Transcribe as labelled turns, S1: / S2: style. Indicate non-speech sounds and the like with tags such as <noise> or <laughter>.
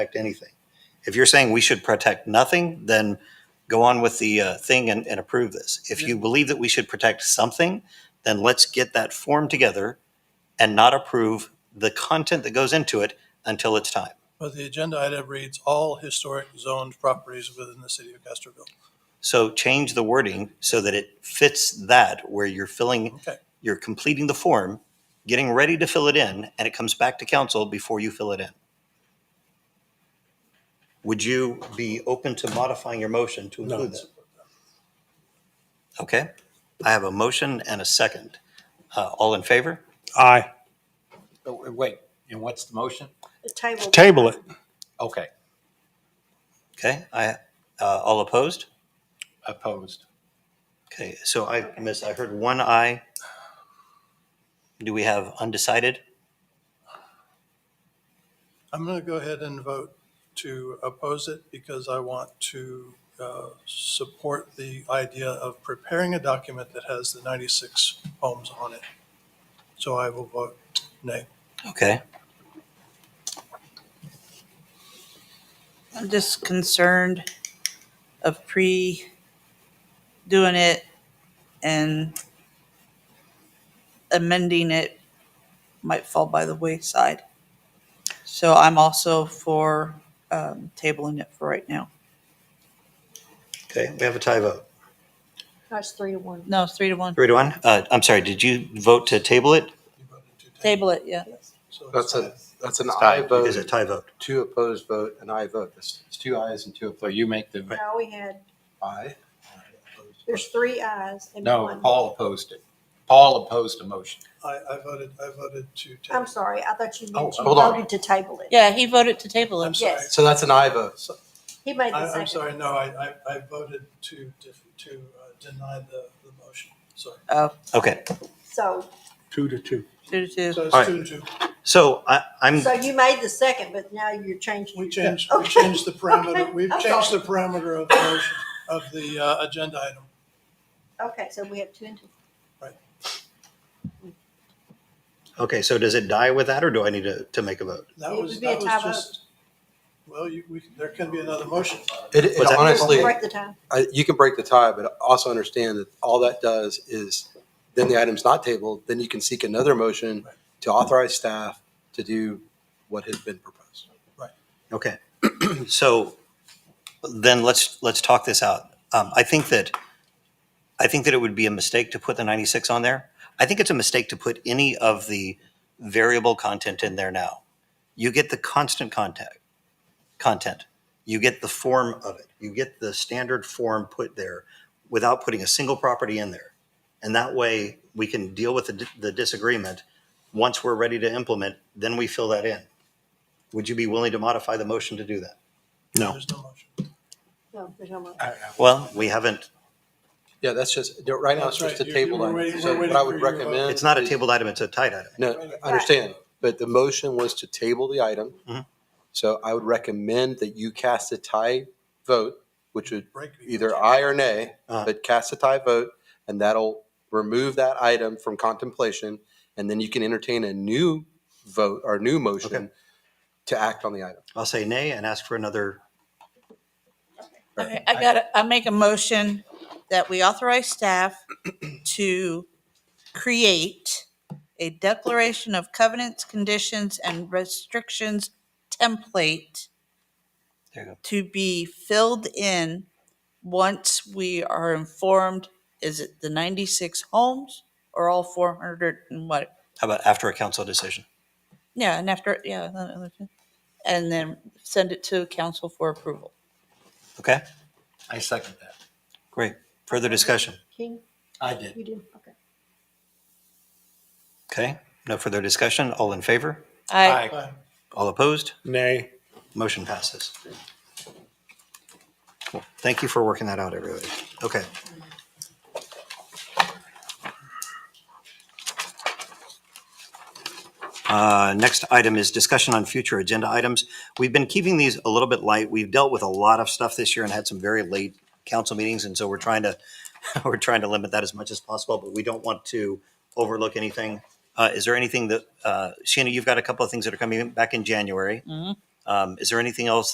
S1: protect anything. If you're saying we should protect nothing, then go on with the uh, thing and, and approve this. If you believe that we should protect something, then let's get that form together and not approve the content that goes into it until it's time.
S2: But the agenda item reads all historic zoned properties within the city of Castroville.
S1: So change the wording so that it fits that where you're filling,
S2: Okay,
S1: you're completing the form, getting ready to fill it in, and it comes back to council before you fill it in. Would you be open to modifying your motion to include that? Okay, I have a motion and a second. Uh, all in favor?
S3: Aye.
S4: Oh, Wait, and what's the motion?
S5: The table.
S3: Table it.
S4: Okay,
S1: Okay, I, uh, all opposed?
S4: opposed.
S1: Okay, so I miss, I heard one aye. Do we have undecided?
S2: I'm going to go ahead and vote to oppose it because I want to uh, support the idea of preparing a document that has the 96 homes on it. So I will vote nay.
S1: Okay,
S6: I'm just concerned of pre doing it and amending it might fall by the wayside. So I'm also for um, tabling it for right now.
S1: okay, we have a tie vote.
S5: That's three to one.
S6: No, it's three to one.
S1: Three to one. Uh, I'm sorry, did you vote to table it?
S2: You voted to
S6: Table it, yeah.
S2: So it's
S7: That's a,
S2: aye.
S7: that's an
S4: It's
S7: aye
S4: tied.
S1: Is it
S7: vote,
S1: tie vote?
S7: two opposed vote, an aye vote. It's
S4: It's two ayes and two opposed. You make the
S5: Now we had,
S7: aye.
S5: there's three ayes and
S4: No,
S5: one.
S4: Paul opposed it. Paul opposed the motion.
S2: I, I voted, I voted to
S5: I'm
S2: table.
S5: sorry, I thought you
S4: Oh,
S5: mentioned
S7: hold on.
S5: voted to table it.
S6: Yeah, he voted to table
S2: I'm
S6: it.
S2: sorry.
S5: yes.
S7: So that's an aye vote.
S5: He made the
S2: I- I'm
S5: second.
S2: sorry, no, I, I- I voted to, def- to uh, deny the, the motion. Sorry.
S6: Oh,
S1: Okay,
S5: So,
S3: Two to two.
S6: two to two.
S2: So
S1: All right.
S2: it's two and two.
S1: so I, I'm,
S5: so you made the second, but now you're changing.
S2: Mm. We
S5: your-
S2: changed, we
S5: Okay.
S2: changed the parameter,
S5: Okay.
S2: we've
S5: I'm
S2: changed the
S5: sorry.
S2: parameter of the motion, of the uh, agenda item.
S5: Okay, so we have two and two.
S1: okay, so does it die with that or do I need to, to make a vote?
S2: That
S5: It
S2: was,
S5: would be a
S2: that was
S5: tie vote.
S2: just, well, you, we, there can be another motion.
S7: It, it
S1: Was that-
S7: honestly,
S5: Break the tie.
S7: I- you can break the tie, but also understand that all that does is then the item's not tabled, then you can seek another motion to authorize staff to do what has been proposed.
S1: Okay, <clears throat> so then let's, let's talk this out. Um, I think that, I think that it would be a mistake to put the 96 on there. I think it's a mistake to put any of the variable content in there now. You get the constant contact, content. You get the form of it. You get the standard form put there without putting a single property in there. And that way, we can deal with the di- the disagreement. Once we're ready to implement, then we fill that in. Would you be willing to modify the motion to do that?
S3: No.
S2: There's no motion.
S5: No, there's no more.
S1: Well, we haven't,
S7: Yeah, that's just, right now it's
S2: That's
S7: just a
S2: right. You- you
S7: table
S2: were
S7: item.
S2: waiting-
S7: So
S2: we're
S7: what
S2: waiting
S7: I
S2: for
S7: would
S2: your vote.
S7: recommend.
S1: it's not a
S7: is-
S1: tabled item, it's a tied item.
S7: No, I understand, but the motion was to table the item.
S1: Mhm.
S7: So I would recommend that you cast a tie vote, which would
S2: Break the-
S7: either aye or nay,
S1: Uh-huh.
S7: but cast a tie vote, and that'll remove that item from contemplation, and then you can entertain a new vote or new
S1: Okay.
S7: motion to act on the item.
S1: I'll say nay and ask for another,
S6: Okay, I got it. I make a motion that we authorize staff <clears throat> to create a declaration of covenants, conditions, and restrictions template
S1: there you go.
S6: to be filled in once we are informed, is it the 96 homes or all 400 and what?
S1: How about after a council decision?
S6: Yeah, and after, yeah. uh, uh, And then send it to council for approval.
S1: Okay,
S4: I second that.
S1: great. Further discussion?
S5: King,
S4: I did.
S5: you do, okay.
S1: Okay, no further discussion. All in favor?
S6: I,
S2: Aye.
S1: All opposed?
S3: Nay.
S1: Motion passes. Cool. Thank you for working that out, everybody. Okay. Uh, Next item is discussion on future agenda items. We've been keeping these a little bit light. We've dealt with a lot of stuff this year and had some very late council meetings, and so we're trying to, <laughs> we're trying to limit that as much as possible, but we don't want to overlook anything. Uh, Is there anything that, uh, Sheena, you've got a couple of things that are coming back in January. Um, Is there anything else